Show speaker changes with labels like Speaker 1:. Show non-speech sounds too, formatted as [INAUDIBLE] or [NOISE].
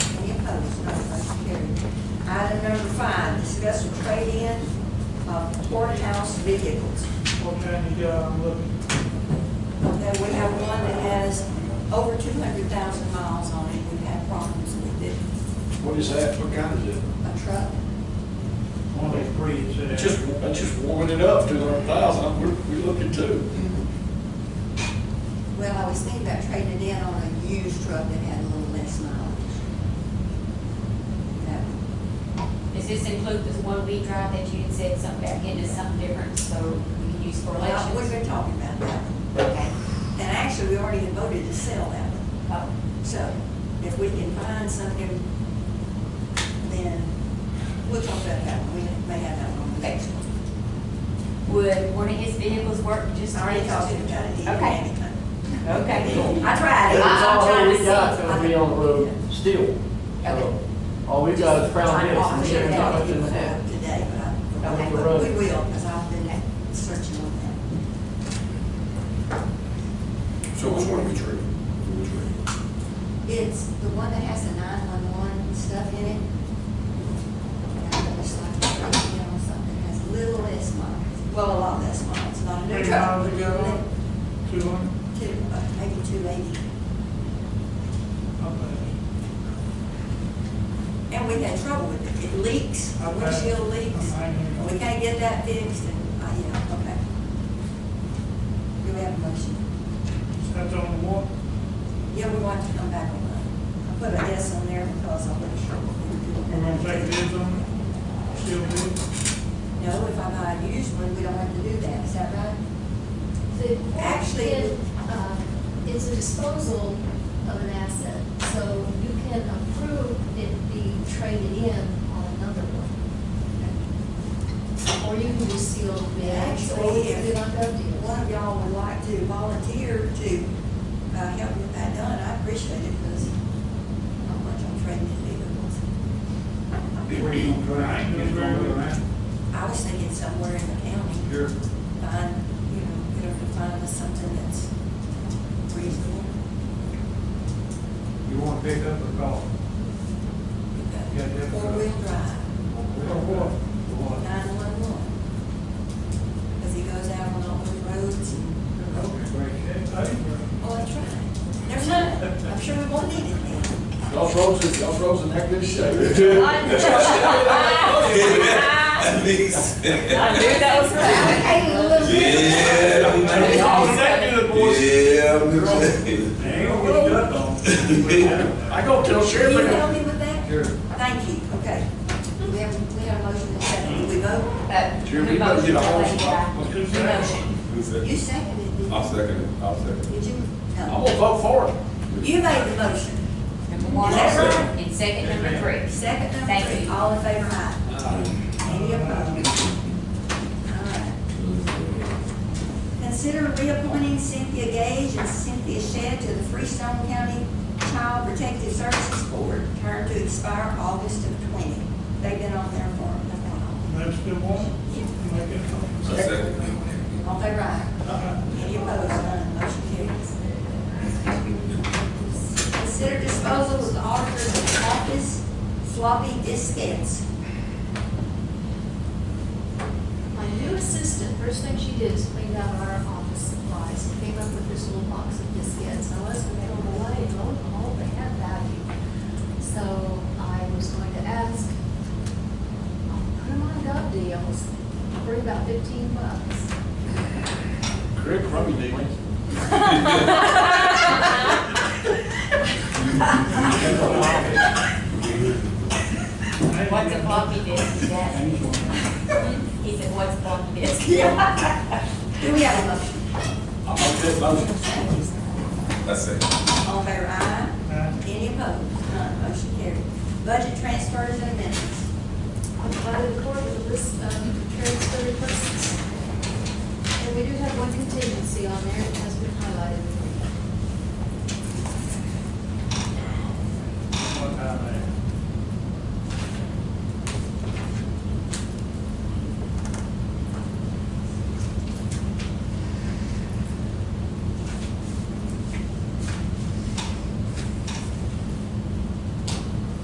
Speaker 1: number five, discuss a trade-in of courthouse vehicles.
Speaker 2: What kind uh, you got on looking?
Speaker 1: Okay, we have one that has over two hundred thousand miles on it, we've had problems with it,
Speaker 3: What is that? What kind is it?
Speaker 1: a truck.
Speaker 2: One of those breeds
Speaker 4: uh,
Speaker 2: that.
Speaker 3: It's just, it's just warming it up, two hundred thousand, we're, we're looking to.
Speaker 1: Well, I was thinking about trading it in on a used truck that had a little less mileage. That would
Speaker 5: Does this include this one we drive that you had said something back into something different, so we can use
Speaker 1: Well, we've
Speaker 5: correlations?
Speaker 1: been talking about that one,
Speaker 5: Okay.
Speaker 1: and actually, we already had voted to sell that one.
Speaker 5: Oh,
Speaker 1: So if we can find something, then we'll talk about that one, we may have that one on the next one.
Speaker 5: Would one of his vehicles work just?
Speaker 1: I already
Speaker 5: next
Speaker 1: talked to
Speaker 5: to-
Speaker 1: him about it, he didn't have
Speaker 5: Okay,
Speaker 1: anything.
Speaker 5: okay.
Speaker 1: I tried.
Speaker 6: It
Speaker 1: it.
Speaker 6: was
Speaker 5: I'm
Speaker 6: all
Speaker 5: trying
Speaker 6: we
Speaker 5: to
Speaker 6: got
Speaker 5: see.
Speaker 6: till we on the road still.
Speaker 5: Okay.
Speaker 6: So, all we got is Crown Vic,
Speaker 5: Just trying
Speaker 6: and there's
Speaker 5: to
Speaker 6: not
Speaker 5: walk
Speaker 6: much in that.
Speaker 5: [LAUGHS]
Speaker 1: Today, but I,
Speaker 6: Okay.
Speaker 1: but we will, because I've been searching on that.
Speaker 3: So which one are we trading? Which one?
Speaker 1: It's the one that has the nine-one-one stuff in it. And I was like, you know, something that has a little less miles. Well, a lot less miles, not a new
Speaker 2: Three
Speaker 1: truck.
Speaker 2: miles ago, two hundred,
Speaker 1: Two, uh, maybe two eighty.
Speaker 2: I think.
Speaker 1: And we had trouble with it. It leaks,
Speaker 2: I
Speaker 1: our
Speaker 2: bet.
Speaker 1: windshield leaks.
Speaker 2: I know.
Speaker 1: We can't get that fixed and, uh, yeah, okay. Do we have a motion?
Speaker 2: That's on the wall.
Speaker 1: Yeah, we want to come back on that. I put a yes on there because I wasn't sure what we were
Speaker 2: We're
Speaker 1: doing.
Speaker 2: gonna take bids on it, still bid.
Speaker 1: No, if I buy a used one, we don't have to do that, is that right?
Speaker 7: The
Speaker 1: Actually-
Speaker 7: actually, uh, is a disposal of an asset, so you can approve it be traded in on another one. Or you can just seal the bid, or
Speaker 1: Actually,
Speaker 7: you can do
Speaker 1: if-
Speaker 7: like that
Speaker 1: If
Speaker 7: deal.
Speaker 1: one of y'all would like to volunteer to uh, help get that done, I appreciate it because not much on trading in vehicles. I was thinking somewhere in the county,
Speaker 3: Here.
Speaker 1: find, you know, you know, find us something that's reasonable.
Speaker 4: You want to pick up a golf? Yeah, yeah.
Speaker 1: Four-wheel drive,
Speaker 4: what?
Speaker 1: nine-one-one. Because he goes out on all those roads and, oh, that's right. Never mind, I'm sure we won't need it then.
Speaker 3: Y'all froze, it- y'all froze in that good [LAUGHS] shape.
Speaker 5: I knew that was right.
Speaker 3: I go tell
Speaker 1: Will you
Speaker 3: Sheriff,
Speaker 1: help me with that?
Speaker 4: Sure.
Speaker 1: Thank you, okay. We have, we have a motion and second, Did we vote?
Speaker 5: Uh,
Speaker 3: Jim,
Speaker 5: the
Speaker 3: you better get a hold of
Speaker 5: motion,
Speaker 3: him.
Speaker 5: the motion.
Speaker 1: You seconded it,
Speaker 8: I'll
Speaker 1: didn't
Speaker 8: second it, I'll second
Speaker 1: you? Did you?
Speaker 3: I'm
Speaker 1: No.
Speaker 3: gonna vote for it.
Speaker 1: You made the motion,
Speaker 5: Number one,
Speaker 1: Yes, sir.
Speaker 5: and second number three.
Speaker 1: second number
Speaker 5: Thank
Speaker 1: three,
Speaker 5: you.
Speaker 1: all in favor, aye. Any opposed? All right. Consider reappointing Cynthia Gage and Cynthia Shedd to the Freestone County Child Protective Services Board, term to expire August of twenty. They've been on there for a while.
Speaker 2: That's the one. Make it up.
Speaker 8: it. I second it.
Speaker 1: All in favor, aye. Any opposed, none, motion carries. Consider disposal of the auditor's office floppy diskettes.
Speaker 7: My new assistant, first thing she did is cleaned out our office supplies, and came up with this little box of biscuits, and I was gonna throw them away, and lo and behold, they had value. So I was going to ask, I'll put them on gov deals, for about fifteen bucks.
Speaker 3: Greg Crummy, did it.
Speaker 1: Oh.
Speaker 5: [LAUGHS] What's a floppy disk, Dad? [LAUGHS] He said, what's a floppy disk?
Speaker 1: Do we have a motion?
Speaker 3: I'll make that motion.
Speaker 8: I second.
Speaker 1: All in favor, aye.
Speaker 2: Aye.
Speaker 1: Any opposed, none, motion carries. Budget transfers and amendments.
Speaker 7: I provided the court with um, a list of transfer requests. And we do have one contingency on there, it has been highlighted in the